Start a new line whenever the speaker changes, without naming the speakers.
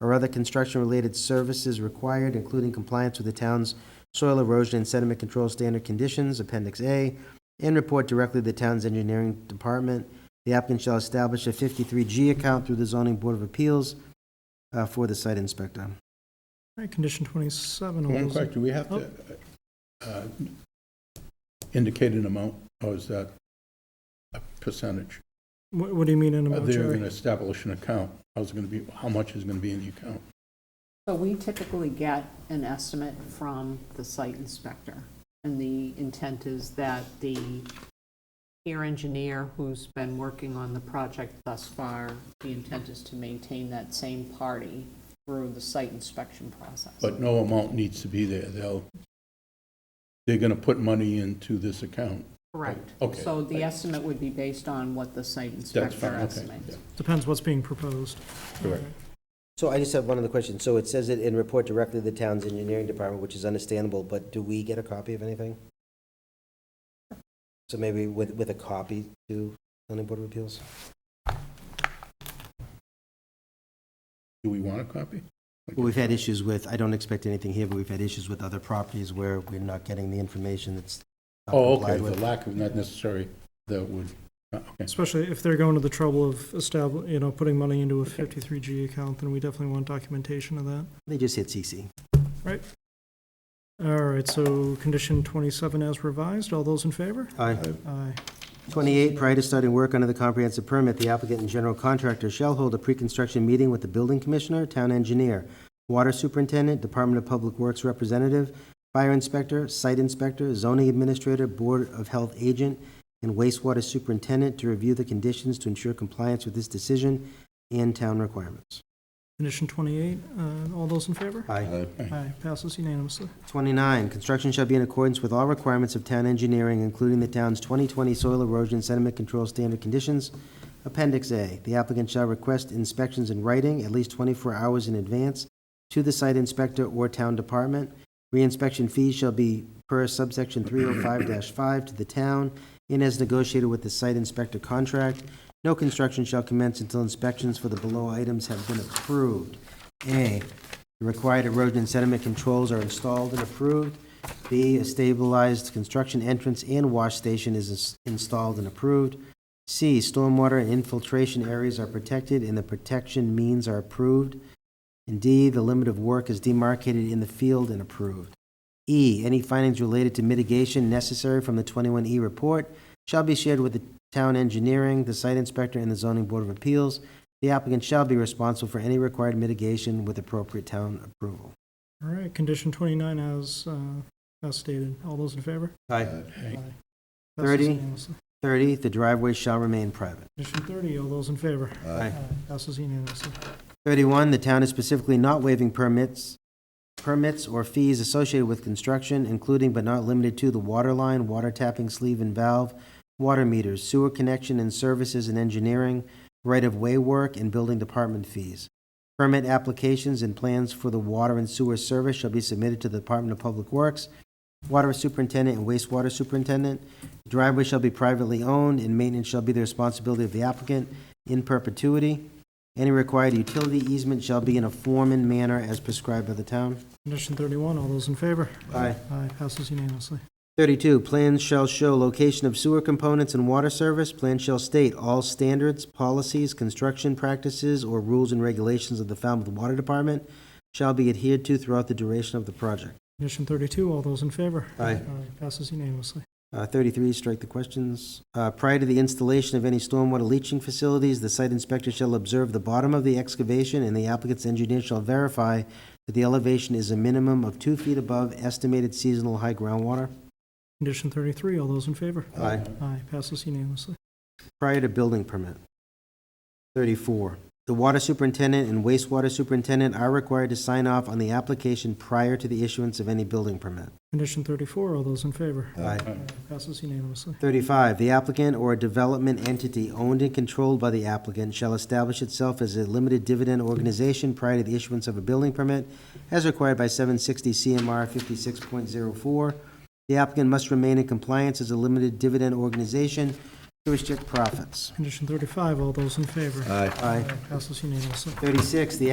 or other construction-related services required, including compliance with the town's soil erosion and sediment control standard conditions, Appendix A, and report directly to the town's engineering department. The applicant shall establish a 53G account through the zoning board of appeals uh, for the site inspector.
All right, condition 27. all
One
those-
question, do we have to uh, indicate an amount, or is that a percentage?
What what do you mean in a
Are they going to
mortuary?
establish an account? How's it going to be, how much is going to be in the account?
So we typically get an estimate from the site inspector, and the intent is that the peer engineer who's been working on the project thus far, the intent is to maintain that same party through the site inspection process.
But no amount needs to be there, they'll, they're going to put money into this account.
Correct.
Okay.
So the estimate would be based on what the site
That's
inspector
fine, okay.
estimates.
yeah,
Depends what's being proposed.
Correct.
So I just have one other question. So it says it in report directly to the town's engineering department, which is understandable, but do we get a copy of anything? So maybe with, with a copy to zoning board of appeals?
Do we want a copy?
Well, we've had issues with, I don't expect anything here, but we've had issues with other properties where we're not getting the information that's not
Oh, okay,
complied
the
with.
lack of, not necessary, that would, uh, okay.
Especially if they're going to the trouble of establishing, you know, putting money into a 53G account, then we definitely want documentation of that.
They just hit CC.
All right, so condition 27 as revised, all those in favor?
Aye.
Aye.
28, prior to starting work under the comprehensive permit, the applicant and general contractor shall hold a pre-construction meeting with the building commissioner, town engineer, water superintendent, Department of Public Works representative, fire inspector, site inspector, zoning administrator, board of health agent, and wastewater superintendent to review the conditions to ensure compliance with this decision and town requirements.
Condition 28, uh, all those in favor?
Aye.
Aye.
Aye, passes unanimously.
29, construction shall be in accordance with all requirements of town engineering, including the town's 2020 soil erosion sediment control standard conditions. Appendix A, the applicant shall request inspections in writing at least 24 hours in advance to the site inspector or town department. Reinspection fees shall be per subsection 305-5 to the town and as negotiated with the site inspector contract. No construction shall commence until inspections for the below items have been approved. A, the required erosion and sediment controls are installed and approved. B, a stabilized construction entrance and wash station is ins- installed and approved. C, stormwater and infiltration areas are protected and the protection means are approved. And D, the limit of work is demarcated in the field and approved. E, any findings related to mitigation necessary from the 21E report shall be shared with the town engineering, the site inspector, and the zoning board of appeals. The applicant shall be responsible for any required mitigation with appropriate town approval.
All right, condition 29 as, uh, as stated, all those in favor?
Aye.
Aye.
Passes
30.
unanimously.
30, the driveway shall remain private.
Condition 30, all those in favor?
Aye.
Passes unanimously.
31, the town is specifically not waiving permits, permits or fees associated with construction, including but not limited to the water line, water tapping sleeve and valve, water meters, sewer connection and services and engineering, right-of-way work, and building department fees. Permit applications and plans for the water and sewer service shall be submitted to the Department of Public Works, water superintendent, and wastewater superintendent. Driveway shall be privately owned, and maintenance shall be the responsibility of the applicant in perpetuity. Any required utility easement shall be in a form and manner as prescribed by the town.
Condition 31, all those in favor?
Aye.
Aye, passes unanimously.
32, plans shall show location of sewer components and water service. Plans shall state all standards, policies, construction practices, or rules and regulations of the Falmouth Water Department shall be adhered to throughout the duration of the project.
Condition 32, all those in favor?
Aye.
Passes unanimously.
Uh, 33, strike the questions. Uh, Prior to the installation of any stormwater leaching facilities, the site inspector shall observe the bottom of the excavation, and the applicant's engineer shall verify that the elevation is a minimum of two feet above estimated seasonal high groundwater.
Condition 33, all those in favor?
Aye.
Aye, passes unanimously.
prior to building permit. 34, the water superintendent and wastewater superintendent are required to sign off on the application prior to the issuance of any building permit.
Condition 34, all those in favor?
Aye.
Passes unanimously.
35, the applicant or a development entity owned and controlled by the applicant shall establish itself as a limited dividend organization prior to the issuance of a building permit as required by 760 CMR 56.04. The applicant must remain in compliance as a limited dividend organization to restrict profits.
Condition 35, all those in favor?
Aye.
Passes unanimously.
36, the